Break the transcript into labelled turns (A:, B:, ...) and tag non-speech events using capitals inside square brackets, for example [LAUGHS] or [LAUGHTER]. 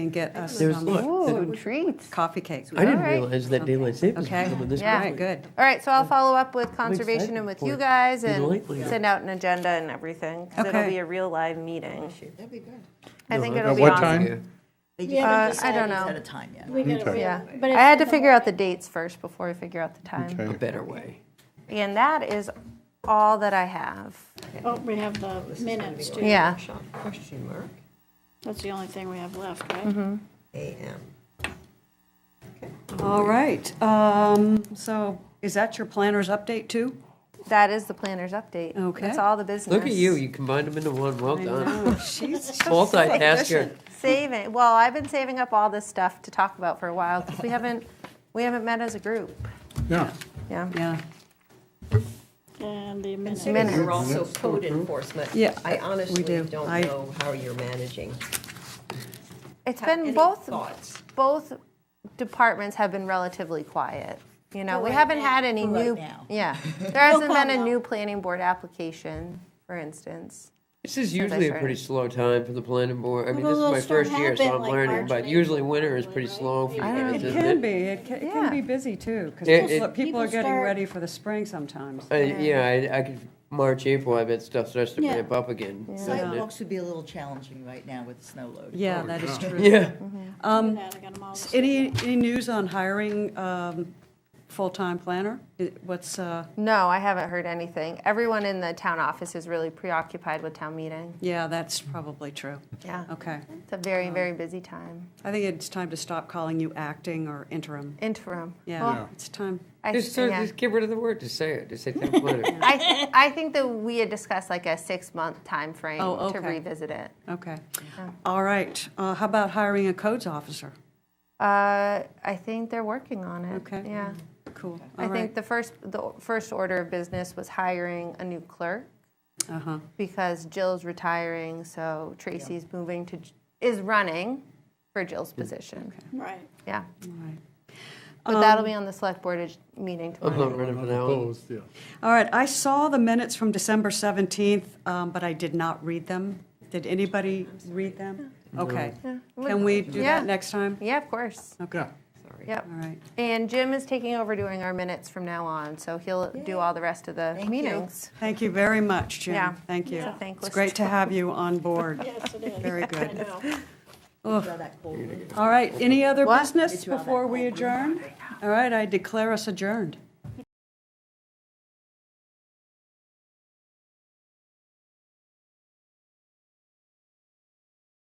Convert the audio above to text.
A: and get us
B: There's-
A: some
B: look,
A: food,
C: Food treats.
A: coffee cakes.
B: I didn't
C: All right.
B: realize that daylight savings was
A: Okay.
B: coming this
C: Yeah.
B: quickly.
A: Good.
C: All right, so I'll follow up with conservation
B: excited
C: and with
B: for
C: you
B: it.
C: guys
B: Be
C: and
B: delightful, yeah.
C: send out an agenda and everything. 'cause
A: Okay.
C: it'll be a real live meeting.
D: That'd be good.
C: I
B: No,
C: think
B: I-
C: it'll
E: At
C: be
E: what
C: awesome.
E: time?
D: They
F: Yeah,
C: Uh,
D: just haven't
C: I don't
D: decided
C: know.
D: At a time yet.
F: We gotta
E: Okay.
F: figure
C: Yeah,
F: out- but
C: I
F: it's
C: had to
F: in the
C: figure out the dates first before we figure out the time.
B: A
E: Okay.
B: better way.
C: And that is all that I have.
F: morning. Oh, we have the minutes too.
C: Yeah.
G: Question mark,
F: That's the only thing we have left,
C: Mm-hmm.
F: right?
G: AM.
A: All right. Um, so is that your planner's update too?
C: That is the planner's update.
A: Okay.
C: That's all the business.
B: Look at you, you combined them into one,
A: [LAUGHS]
B: well done.
A: Oh, she's just
B: [LAUGHS]
A: so
B: Multitasker.
A: efficient.
C: Saving, well, I've been saving up all this stuff to talk about for a while because we haven't, we haven't met as a group.
E: Yeah.
C: Yeah.
A: Yeah.
F: And the minutes.
C: Minutes.
G: You're also code enforcement.
A: Mm-hmm. Yeah,
G: I
A: we
G: honestly
A: do.
G: don't
A: I-
G: know how you're managing.
C: It's
G: Any
C: been both,
G: Thoughts?
C: both departments have been relatively quiet. You know, we
D: right
C: haven't
D: now.
C: had any
D: For right
C: new,
D: now. [LAUGHS]
C: yeah. There hasn't been a
F: comment.
C: new planning board application, for instance.
B: This is
C: Since I
B: usually a
C: started.
B: pretty slow time for the planning board. I mean,
F: Although
B: this is
F: they'll
B: my
F: start
B: first year, so I'm
F: happening like
B: learning,
F: March
B: but
F: and
B: usually winter is pretty slow for
A: It
B: beginnings,
A: can
B: isn't
A: be.
B: it?
A: It can, it
C: Yeah.
A: can be busy too,
B: It-
A: because
B: it-
A: people are
F: People
A: getting
F: start-
A: ready for the spring sometimes.
B: I- Yeah, I, I could, March, April, I bet stuff starts to
F: Yeah.
B: ramp up again, doesn't it?
D: Sidewalks would be a little challenging right now with the snow load.
A: Yeah, that is true.
B: Oh, Yeah.
F: I got 'em all the same.
A: Any, any news on hiring, um, full-time planner? It- What's, uh,
C: No, I haven't heard anything. Everyone in the town office is really preoccupied with town meeting.
A: yeah, that's probably true.
C: Yeah.
A: Okay.
C: It's a very, very busy time.
A: I think it's time to stop calling you acting or interim.
C: Interim.
A: Yeah,
C: Well,
A: it's time.
C: I,
B: Just, sort of-
C: yeah.
B: just get rid of the word, just say it, just say town planner.
C: I, I think that we had discussed like a six-month time frame
A: Oh,
C: to
A: okay.
C: revisit it.
A: Okay. All right. Uh, How about hiring a codes officer?
C: Uh, I think they're working on it.
A: Okay.
C: Yeah.
A: Cool.
C: I think the first, the first order of business was hiring a new clerk
A: the. Uh-huh.
C: because Jill's retiring, so Tracy's moving to, J- is running for
D: Mm,
C: Jill's position.
F: Right.
C: Yeah.
A: All right.
C: But
D: Um,
C: that'll be on the select board ag- meeting
B: I'm
C: tomorrow.
B: not running for that one.
E: yeah.
A: All right. I saw the minutes from December 17th, um, but I did not read them. Did anybody read them? Okay. Can we do
C: Yeah.
A: that next time?
C: Yeah, of course.
E: Yeah.
C: Yep.
A: All right.
C: And Jim is taking over doing our minutes from now on, so he'll do all the rest of the
D: Thank you.
C: meetings.
A: Thank you very much, Jim.
C: Yeah.
A: Thank you.
C: It's a thankless
A: It's great to have you on board.
C: [LAUGHS]
F: Yes, it is.
A: Very
F: I
A: good.
F: know.
D: Draw that cold.
A: All right. Any other
C: What?
A: business
D: Withdraw that
A: before we
D: whole group.
A: adjourn? All right. I declare us adjourned.